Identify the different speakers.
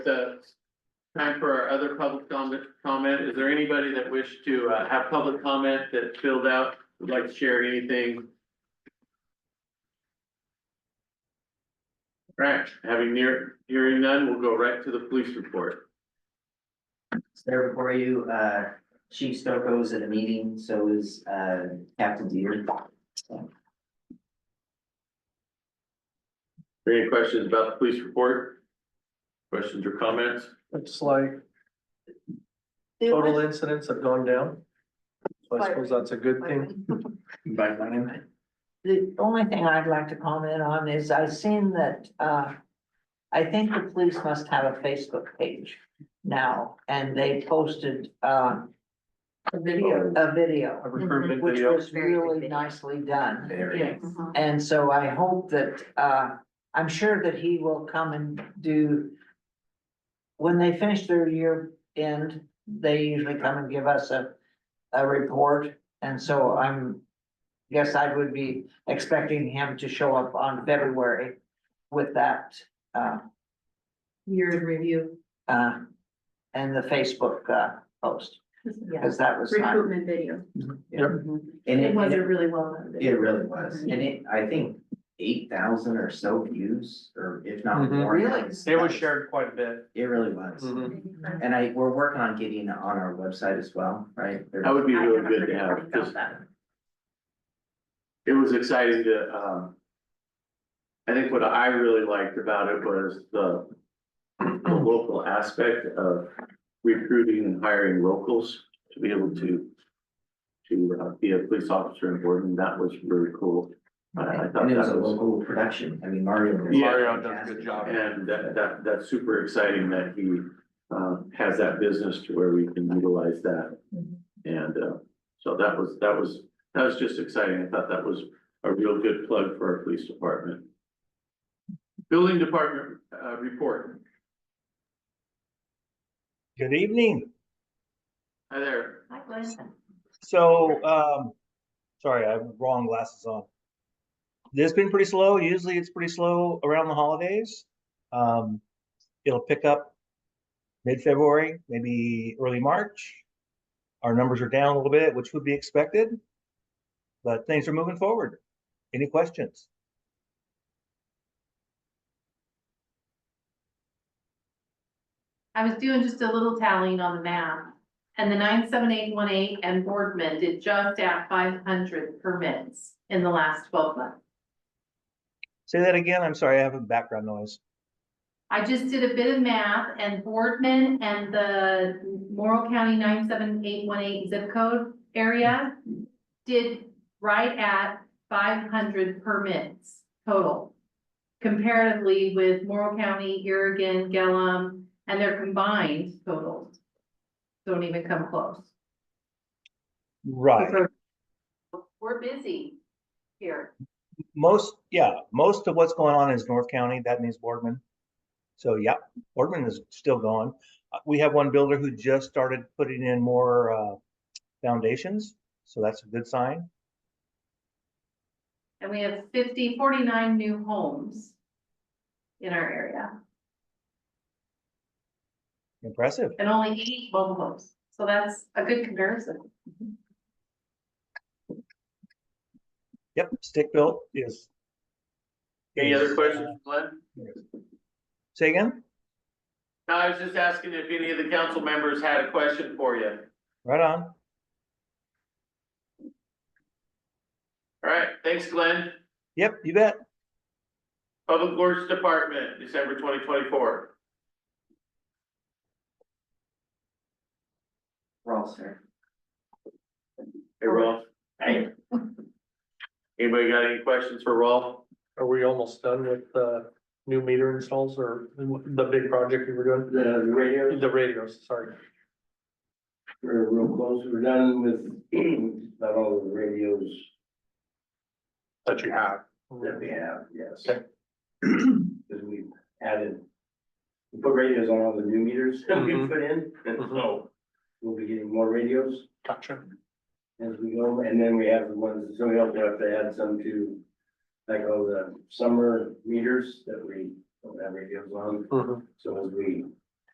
Speaker 1: the time for our other public comment, comment. Is there anybody that wished to uh, have public comment that filled out, would like to share anything? Right, having near, hearing none, we'll go right to the police report.
Speaker 2: It's there before you, uh, Chief Stokoe's at a meeting, so is, uh, Captain Deere.
Speaker 1: Are there Any questions about the police report? Questions or comments?
Speaker 3: It's like
Speaker 4: It
Speaker 3: total
Speaker 4: was
Speaker 3: incidents have gone down. So I suppose that's a good thing.
Speaker 1: By name.
Speaker 4: The only thing I'd like to comment on is I've seen that, uh, I think the police must have a Facebook page now, and they posted, uh,
Speaker 5: A video.
Speaker 4: a video,
Speaker 3: A recruitment
Speaker 4: which
Speaker 3: video.
Speaker 4: was really nicely done.
Speaker 5: Yes. Uh-huh.
Speaker 4: And so I hope that, uh, I'm sure that he will come and do. When they finish their year end, they usually come and give us a, a report, and so I'm. Guess I would be expecting him to show up on February with that, uh,
Speaker 5: Year in review.
Speaker 4: uh, and the Facebook, uh, post,
Speaker 5: Yeah.
Speaker 4: because that was not.
Speaker 5: Recruitment video.
Speaker 1: Mm-hmm.
Speaker 2: And
Speaker 5: It
Speaker 2: it,
Speaker 5: was
Speaker 2: and
Speaker 5: a
Speaker 2: it,
Speaker 5: really Mhm. well done
Speaker 2: it
Speaker 5: video.
Speaker 2: really was, and it, I think eight thousand or so views, or if not
Speaker 3: Mhm.
Speaker 2: more.
Speaker 4: Really?
Speaker 3: It was shared quite a bit.
Speaker 2: It really was,
Speaker 3: Mhm.
Speaker 2: and I, we're working on getting on our website as well, right? There-
Speaker 1: That would be
Speaker 5: I
Speaker 1: really
Speaker 5: haven't
Speaker 1: good to
Speaker 5: heard
Speaker 1: have,
Speaker 5: anything
Speaker 1: because
Speaker 5: about that.
Speaker 1: it was exciting to, um. I think what I really liked about it was the, the local aspect of recruiting and hiring locals to be able to. To uh, be a police officer in Gordon, that was really cool. I I thought
Speaker 2: Uh, And it was a
Speaker 1: that was,
Speaker 2: local production, I mean, Mario. did
Speaker 1: Yeah.
Speaker 3: Mario does a good job.
Speaker 1: and that, that, that's super exciting that he, uh, has that business to where we can utilize that.
Speaker 5: Mhm.
Speaker 1: And, uh, so that was, that was, that was just exciting. I thought that was a real good plug for our police department. Building department, uh, report.
Speaker 6: Good evening.
Speaker 1: Hi there.
Speaker 6: So, um, sorry, I have wrong glasses on. This has been pretty slow. Usually it's pretty slow around the holidays. Um, it'll pick up mid-February, maybe early March. Our numbers are down a little bit, which would be expected, but things are moving forward. Any questions?
Speaker 7: I was doing just a little tallying on the map. And the nine, seven, eight, one, eight and Boardman did just at five hundred permits in the last twelve months.
Speaker 6: Say that again. I'm sorry, I have a background noise.
Speaker 7: I just did a bit of math and Boardman and the Morrill County nine, seven, eight, one, eight zip code area did right at five hundred permits total. Comparatively with Morrill County, Irrigan, Gillum, and their combined totals. Don't even come close.
Speaker 6: Right.
Speaker 7: We're busy here.
Speaker 6: Most, yeah, most of what's going on is North County. That means Boardman. So, yeah, Boardman is still going. Uh, We have one builder who just started putting in more uh, foundations, so that's a good sign.
Speaker 7: And we have 50, 49 new homes in our area
Speaker 6: Impressive.
Speaker 7: and only eight mobile homes. So that's a good comparison.
Speaker 6: Yep, stick built is.
Speaker 1: Any other
Speaker 6: is,
Speaker 1: questions, Glenn?
Speaker 6: Say again?
Speaker 1: No, I was just asking if any of the council members had a question for you.
Speaker 6: Right on.
Speaker 1: All right, thanks, Glenn.
Speaker 6: Yep, you bet.
Speaker 1: Public Works Department, December twenty twenty-four.
Speaker 2: We're all set.
Speaker 1: Hey, Rolf. Hey. Anybody got any questions for Rolf?
Speaker 3: Are we almost done with the new meter installs or the big project we were doing?
Speaker 8: the radio,
Speaker 3: The radios, sorry.
Speaker 8: we're real close, we're done with about all the radios
Speaker 3: That you have.
Speaker 8: that we have, yes.
Speaker 3: Okay.
Speaker 8: Cause we added, we put radios on all the new meters that we
Speaker 3: Mhm.
Speaker 1: Mm-hmm.
Speaker 8: put in, and so we'll be getting more radios
Speaker 3: Gotcha.
Speaker 8: as we go, and then we have the ones, so we also have to add some to like all the summer meters that we don't have radios on,
Speaker 3: Mhm.
Speaker 8: so as we